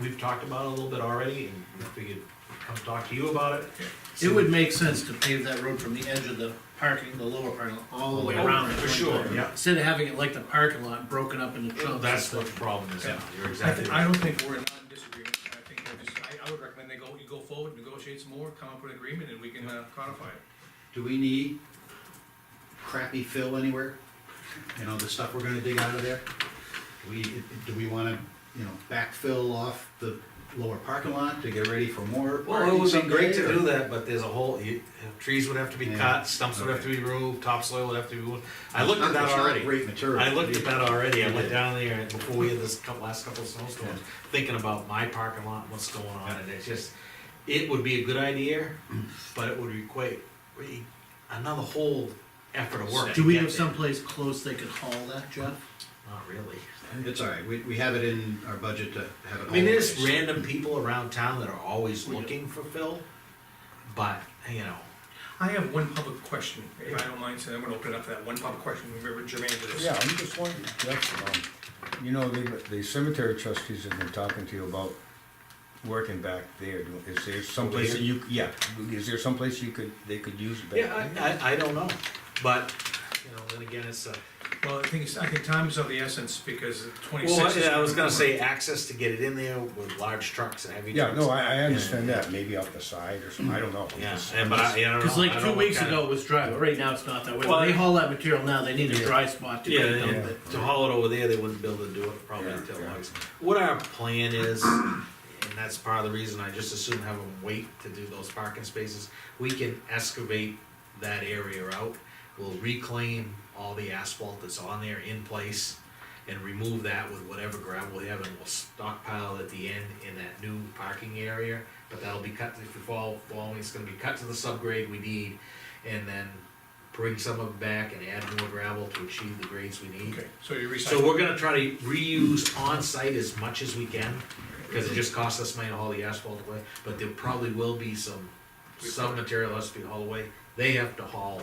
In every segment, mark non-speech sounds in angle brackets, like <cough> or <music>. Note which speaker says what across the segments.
Speaker 1: we've talked about it a little bit already, and if we could come talk to you about it.
Speaker 2: It would make sense to pave that road from the edge of the parking, the lower parking, lot, all the way
Speaker 1: Oh,
Speaker 2: around. at
Speaker 1: For
Speaker 2: one
Speaker 1: sure,
Speaker 2: time.
Speaker 1: yeah.
Speaker 2: Instead of having it like the parking lot broken up into chunks.
Speaker 1: That's
Speaker 2: and
Speaker 1: what the
Speaker 2: stuff.
Speaker 1: problem is now, you're
Speaker 3: I thi-
Speaker 1: exactly right.
Speaker 3: I don't think we're in disagreement, I think we're just, I, I would recommend they go, you go forward, negotiate some more, come up with an agreement, and we can uh, codify it.
Speaker 4: Do we need crappy fill anywhere? You know, the stuff we're gonna dig out of there? We, do we wanna, you know, backfill off the lower parking lot to get ready for more
Speaker 1: Well, it
Speaker 4: parking
Speaker 1: would be
Speaker 4: someday?
Speaker 1: great to
Speaker 4: or-
Speaker 1: do that, but there's a whole, you- trees would have to be
Speaker 4: Yeah.
Speaker 1: cut, stumps would have to be removed, topsoil would have to be, removed. I looked at that
Speaker 4: It's not
Speaker 1: already.
Speaker 4: Great material.
Speaker 1: I looked at that already, I
Speaker 4: You
Speaker 1: went
Speaker 4: did.
Speaker 1: down there and before we had this couple, last couple of snowstorms, thinking about my parking lot, and what's going on, and it's just, it would be a good idea, but it would require, re- another whole effort of work.
Speaker 2: Do
Speaker 1: to
Speaker 2: we
Speaker 1: get
Speaker 2: have
Speaker 1: there.
Speaker 2: someplace close they could haul that, Jeff?
Speaker 1: Not really.
Speaker 4: It's all right, we, we have it in our budget to have it.
Speaker 1: I mean, there's
Speaker 4: always.
Speaker 1: random people around town that are always looking for fill, but, you know,
Speaker 3: I have one public question, if I don't mind, so I'm gonna open it up for that one public question, remember germane to this.
Speaker 5: Yeah, I'm just wondering, Jeff, um, you know, the, the cemetery trustees have been talking to you about working back there. Do- Is there someplace that you, yeah, is there someplace you could, they could use back?
Speaker 1: yeah,
Speaker 5: there?
Speaker 1: I, I, I don't know, but, you know, then again, it's a.
Speaker 3: Well, the thing is, I think time is of the essence, because
Speaker 1: Well,
Speaker 3: twenty-six is.
Speaker 1: I was gonna say access to get it in there with large trucks and heavy
Speaker 5: Yeah,
Speaker 1: trucks.
Speaker 5: no, I, I understand that, maybe off the side or something, I don't know. I'm
Speaker 1: Yeah,
Speaker 5: just-
Speaker 1: and but I, I don't know.
Speaker 2: Cause
Speaker 1: I
Speaker 2: like
Speaker 1: don't
Speaker 2: two
Speaker 1: know
Speaker 2: weeks
Speaker 1: what kind
Speaker 2: ago it was dry, but right now it's not that way.
Speaker 1: Well,
Speaker 2: When they
Speaker 1: I-
Speaker 2: haul that material now, they need a
Speaker 5: Yeah.
Speaker 2: dry spot
Speaker 1: of-
Speaker 2: to
Speaker 1: Yeah,
Speaker 2: get it
Speaker 1: yeah,
Speaker 2: done.
Speaker 1: but to haul it over there, they wouldn't be able to do it probably
Speaker 5: Yeah,
Speaker 1: until
Speaker 5: yeah.
Speaker 1: August. What our plan is, and that's part of the reason I just assume have them wait to do those parking spaces, we can excavate that area out. We'll reclaim all the asphalt that's on there in place and remove that with whatever gravel we have and we'll stockpile at the end in that new parking area. But that'll be cut, if you fall, following, it's gonna be cut to the subgrade we need and then bring some of it back and add more gravel to achieve the grades we need.
Speaker 3: Okay, so you recycle.
Speaker 1: So we're gonna try to reuse on-site as much as we can, because it just costs us money to haul the asphalt away, but there probably will be some, some material has to be hauled away. They have to haul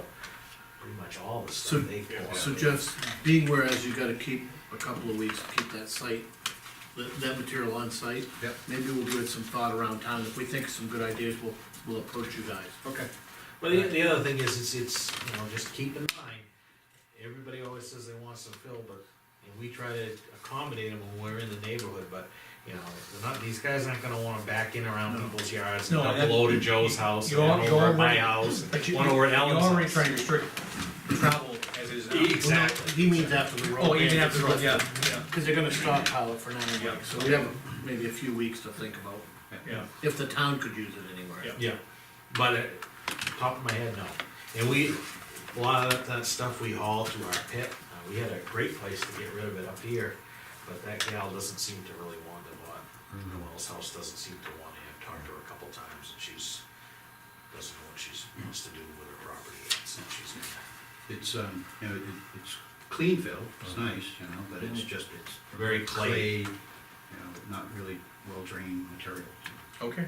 Speaker 1: pretty much all the
Speaker 2: So-
Speaker 1: stuff they pull out.
Speaker 2: So Jeff's, being whereas you gotta keep a couple of weeks, to keep that site, that, that material on site.
Speaker 4: Yep.
Speaker 2: Maybe we'll give it some thought around town. If we think of some good ideas, we'll, we'll approach you guys.
Speaker 4: Okay,
Speaker 1: But the, the other thing is, it's, it's, you know, just keep in mind, everybody always says they want some fill, but, and we try to accommodate them when we're in the neighborhood, but, you know, they're not, these guys aren't gonna wanna back in around
Speaker 2: No.
Speaker 1: people's yards,
Speaker 3: No,
Speaker 1: double
Speaker 3: that-
Speaker 1: load at Joe's house, and
Speaker 3: you're-
Speaker 1: then
Speaker 3: you're
Speaker 1: over at my
Speaker 3: already-
Speaker 1: house,
Speaker 3: But you,
Speaker 1: one over at
Speaker 3: you're
Speaker 1: Ellen's
Speaker 3: already
Speaker 1: house.
Speaker 3: trying to restrict travel as is now.
Speaker 2: Well, no,
Speaker 1: Exactly.
Speaker 2: He means after the road.
Speaker 3: Oh, you
Speaker 2: ban
Speaker 3: didn't have
Speaker 2: gets
Speaker 3: to, run- yeah,
Speaker 2: lifted.
Speaker 3: yeah,
Speaker 2: Cause they're gonna stockpile it for now anyway,
Speaker 3: Yeah.
Speaker 2: so we have maybe a few weeks to think about,
Speaker 3: yeah.
Speaker 2: if the town could use it anywhere.
Speaker 3: Yeah.
Speaker 1: Yeah, but uh, top of my head, no. And we, a lot of that, that stuff we haul to our pit, uh, we had a great place to get rid of it up here, but that gal doesn't seem to really want it, but Noel's house doesn't seem to want it. I've talked to her a couple times and she's, doesn't know what she's, wants to do with her property, so she's.
Speaker 4: it's, um, you know, it, it's clean fill, it's nice, you know, but it's just, it's
Speaker 1: Mm-hmm. Very
Speaker 4: clay,
Speaker 1: clay.
Speaker 4: you know, not really well drained material.
Speaker 3: Okay.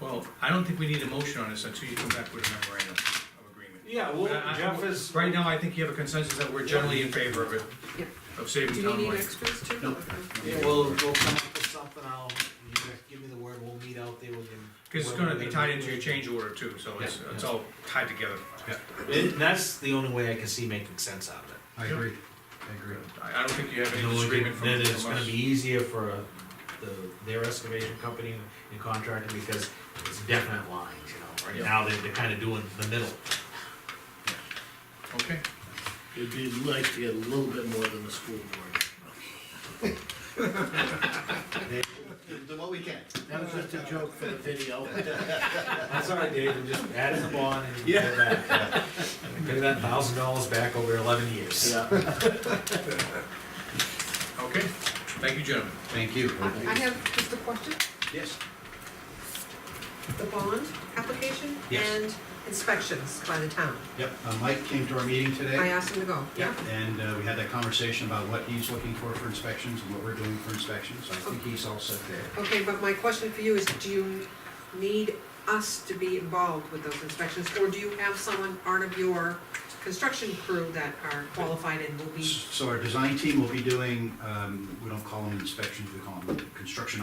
Speaker 3: Well, I don't think we need a motion on this until you come back with a memorandum of agreement.
Speaker 1: Yeah, well,
Speaker 3: Uh, I- I-
Speaker 1: Jeff is.
Speaker 3: Right now, I think you have a consensus that we're generally in favor of it,
Speaker 6: Yep.
Speaker 3: of saving
Speaker 6: Do we
Speaker 3: town
Speaker 6: need
Speaker 3: money.
Speaker 6: extras too?
Speaker 4: No.
Speaker 1: Yeah, we'll, we'll come up with something, I'll, you guys give me the word, we'll meet out there, we can.
Speaker 3: Because it's gonna be tied into your change order too, so it's,
Speaker 1: Yeah,
Speaker 3: it's
Speaker 1: yeah.
Speaker 3: all tied together.
Speaker 1: It- That's the only way I can see making sense out of it.
Speaker 4: I agree, I agree.
Speaker 3: I, I don't think you have
Speaker 1: No,
Speaker 3: any
Speaker 1: we
Speaker 3: disagreement
Speaker 1: can-
Speaker 3: from
Speaker 1: Then
Speaker 3: from
Speaker 1: it's
Speaker 3: us.
Speaker 1: gonna be easier for uh, the, their excavation company and contractor, because it's definite lines, you know, right
Speaker 3: Yeah.
Speaker 1: now, they're, they're kinda doing the middle.
Speaker 3: Okay,
Speaker 2: It'd be nice to get a little bit more than the school board.
Speaker 4: Do what we can.
Speaker 2: That was just a joke for the video.
Speaker 1: That's all right, Dave, and just add in the bond and get it back. <laughs> And Pay that thousand dollars back over eleven years.
Speaker 2: Yeah.
Speaker 3: okay, thank you, gentlemen.
Speaker 4: Thank you.
Speaker 6: I I have just a question,
Speaker 4: Yes.
Speaker 6: the bond application
Speaker 1: Yes.
Speaker 6: and inspections by the town.
Speaker 4: Yep, uh, Mike came to our meeting today.
Speaker 6: I asked him to go, yeah?
Speaker 4: And uh, we had that conversation about what he's looking for for inspections and what we're doing for inspections. I think he's all set there.
Speaker 6: Okay, but my question for you is, do you need us to be involved with those inspections? Or do you have someone, part of your construction crew that are qualified and will be
Speaker 4: So our design team will be doing, um, we don't call them inspections, we call them construction